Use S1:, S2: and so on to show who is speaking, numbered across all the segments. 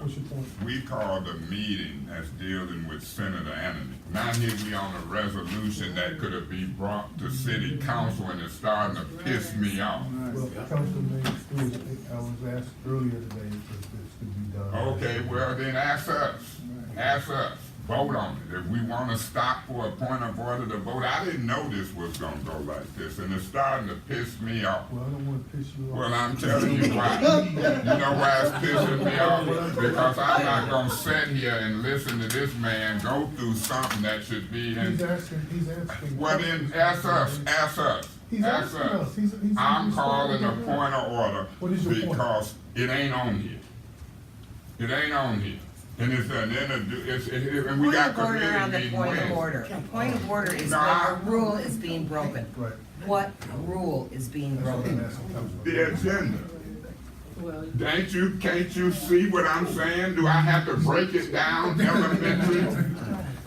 S1: what's your point?
S2: We called a meeting that's dealing with Senator Anthony. Now here we on a resolution that could have been brought to city council and it's starting to piss me off.
S3: Well, Councilman, Stewart, I was asked earlier today if this could be done.
S2: Okay, well then ask us, ask us, vote on it. If we wanna stop for a point of order to vote, I didn't know this was gonna go like this and it's starting to piss me off.
S3: Well, I don't wanna piss you
S2: Well,
S3: off.
S2: I'm telling you why. You know why it's pissing me off? Because I'm not gonna sit here and listen to this man go through something that should be
S3: He's
S2: in.
S3: asking, he's asking.
S2: Well, then, ask us, ask us,
S3: He's
S2: ask
S3: asking us.
S2: us.
S3: He's- he's-
S2: I'm
S3: he's-
S2: calling a point of order
S3: What is your point?
S2: because it ain't on here. It ain't on here. And it's, an inter- it's, it- it- and we
S4: Point
S2: got
S4: of order
S2: committee
S4: on the
S2: meeting
S4: point of
S2: Wednesday.
S4: order. A point of order is
S2: Nah.
S4: when a rule is being broken.
S3: Right.
S4: What rule is being
S3: That's what I'm
S4: broken?
S3: asking,
S2: The
S3: Councilman.
S2: agenda.
S5: Well,
S2: Ain't you, can't you see what I'm saying? Do I have to break it down elementary?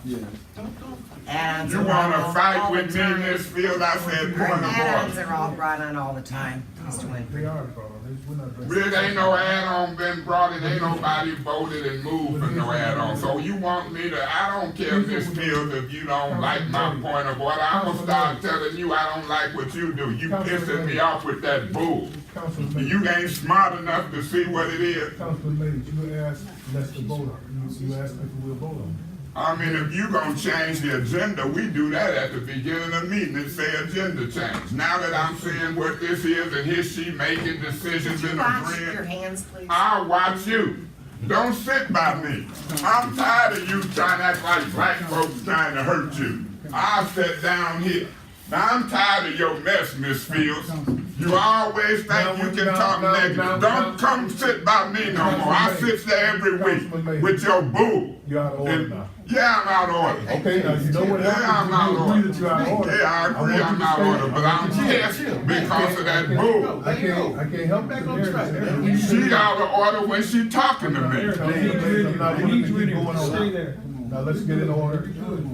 S4: Add-ons
S2: You
S4: are brought
S2: wanna
S4: on
S2: fight
S4: all the
S2: with me in this
S4: time.
S2: field, I said point
S4: Add-ons
S2: of
S4: are all brought on all the time, Mr.
S3: They
S4: Winfrey.
S3: are, Carl, They- we're not.
S2: order. There ain't no add-on been brought, and ain't nobody voted and moved for no add-on, so you want me to, I don't care if this field, if you don't like my point of order, I'm gonna start telling you I don't like what you do, you pissing me off with that bull.
S3: Councilman,
S2: You ain't smart enough to see what it is.
S3: Councilman Mays, you asked, that's the vote on, it. you, you asked if we'll vote on. it.
S2: I mean, if you gonna change the agenda, we do that at the beginning of meeting and say agenda change. Now that I'm seeing what this is and here she making
S4: Could
S2: decisions
S4: you
S2: and
S4: wash your
S2: agreeing,
S4: hands, please?
S2: I'll watch you. Don't sit by me. I'm tired of you trying to act like black folks trying to hurt you. I'll sit down here. Now, I'm tired of your mess, Miss Fields. You always think you can talk negative. Don't come sit by me no more. I sit there every week with your boo.
S3: You're out of order now.
S2: Yeah, I'm out of order.
S3: Okay, now, you know what
S2: Yeah, I'm
S3: happened,
S2: out of
S3: you agree
S2: order.
S3: that you're out of order.
S2: Yeah, I agree,
S3: want
S2: I'm
S3: you to
S2: out of
S3: stay.
S2: order, but I'm pissed because of that bull.
S3: I can't, I can't help it.
S6: Back on
S3: There it is.
S6: track,
S3: There it
S6: man.
S3: is.
S2: She out of order when she talking to me.
S3: I
S1: I
S3: need
S1: need
S3: you
S1: you
S3: in
S1: in
S3: here.
S1: stay there.
S3: Now, let's get it order.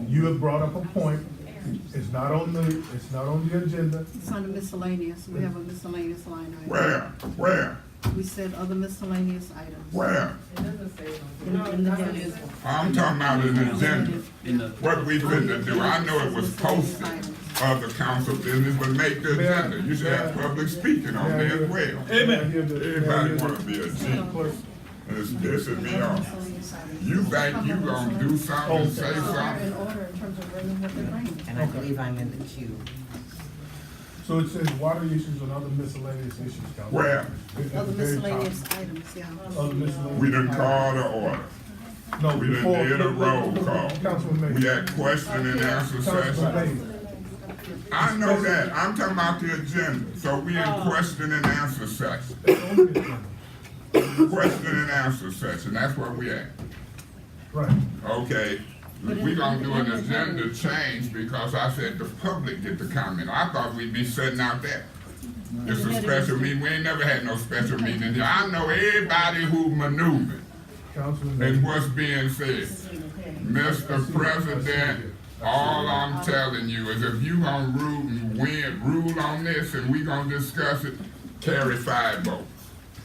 S3: You have brought up a point. It's not on the, it's not on the agenda.
S5: it's under miscellaneous, we have a miscellaneous line item.
S2: Where, where,
S5: We said other miscellaneous items.
S2: where?
S5: In- in the budget.
S2: I'm talking about an agenda.
S7: in the
S2: What we finna do, I know it was posted of the council business, but make the agenda. You should have public speaking on there as well. Everybody wanna be a G. It's pissing me off.
S5: Miscellaneous items.
S2: You think you gonna do something, say
S5: So they're
S2: something?
S5: in order in terms of bringing what they're bringing.
S4: And I believe I'm in the queue.
S3: So it says water issues and other miscellaneous issues, Councilman.
S2: Where?
S3: It's at the
S5: Other
S3: very top.
S5: miscellaneous items, yeah.
S3: Other miscellaneous.
S2: We done called the order.
S3: No,
S2: We done
S3: before.
S2: did a roll call.
S3: Councilman
S2: We
S3: Mays.
S2: had question and answer
S3: Councilman
S2: session.
S3: Mays.
S2: I know that, I'm talking about the agenda, so we in question and answer session.
S3: It's on the agenda.
S2: Question and answer session, that's where we at.
S3: Right.
S2: Okay, we gonna do an agenda change because I said the public get to comment. I thought we'd be sitting out there. It's a special meeting, we ain't never had no special meeting. here. I know everybody who maneuvered.
S3: Councilman
S2: And
S3: Mays.
S2: what's being said. Mr. President, all I'm telling you is if you gonna rule and win, rule on this and we gonna discuss it, carry five votes.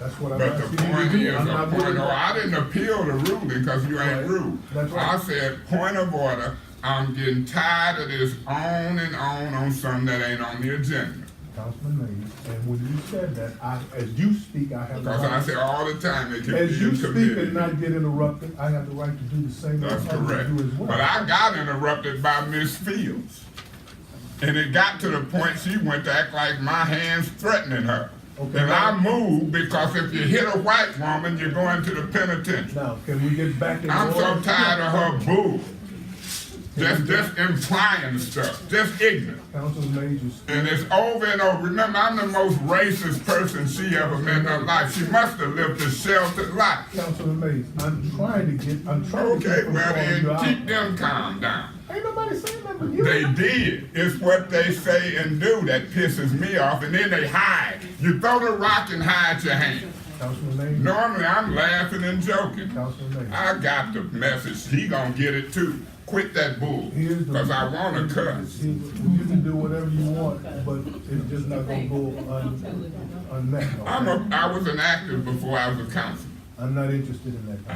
S3: That's what I'm
S2: But
S3: asking
S2: the
S3: you to
S2: point
S3: do.
S2: is,
S3: I'm
S2: a
S3: not
S2: point,
S3: doing
S2: no,
S3: that.
S2: I didn't appeal the ruling, cause you ain't
S3: Right.
S2: ruled.
S3: That's right.
S2: I said, point of order, I'm getting tired of this on and on on something that ain't on the agenda.
S3: Councilman Mays, and when you said that, I, as you speak, I have. the
S2: Cause I
S3: right-
S2: say all the time, it can
S3: As
S2: be
S3: you
S2: in
S3: speak and
S2: committee.
S3: not get interrupted, I have the right to do the same. as
S2: That's
S3: I would
S2: correct.
S3: do as well.
S2: But I got interrupted by Miss Fields. And it got to the point she went to act like my hand's threatening her.
S3: Okay.
S2: And I moved because if you hit a white woman, you're going to the penitentiary.
S3: Now, can we get back in
S2: I'm
S3: order?
S2: so tired of her boo. Just, just implying stuff, just ignorant.
S3: Councilman Mays, you s-
S2: And it's over and over. Remember, I'm the most racist person she ever met in her life. She must have lived a sheltered life.
S3: Councilman Mays, I'm trying to get, I'm trying to.
S2: Okay,
S3: get
S2: well
S3: from
S2: then,
S3: calling you
S2: keep
S3: out.
S2: them calm down.
S3: Ain't nobody saying nothing to you.
S2: They did. It's what they say and do that pisses me off, and then they hide. You throw the rock and hide your hand.
S3: Councilman Mays,
S2: Normally, I'm laughing and joking.
S3: Councilman Mays.
S2: I got the message. He gonna get it too. Quit that bull,
S3: Here's the-
S2: cause I wanna cuss.
S3: You you can do whatever you want, but it's just not gonna go un, unmet.
S2: I'm a, I was an actor before I was a counselor.
S3: I'm not interested in that.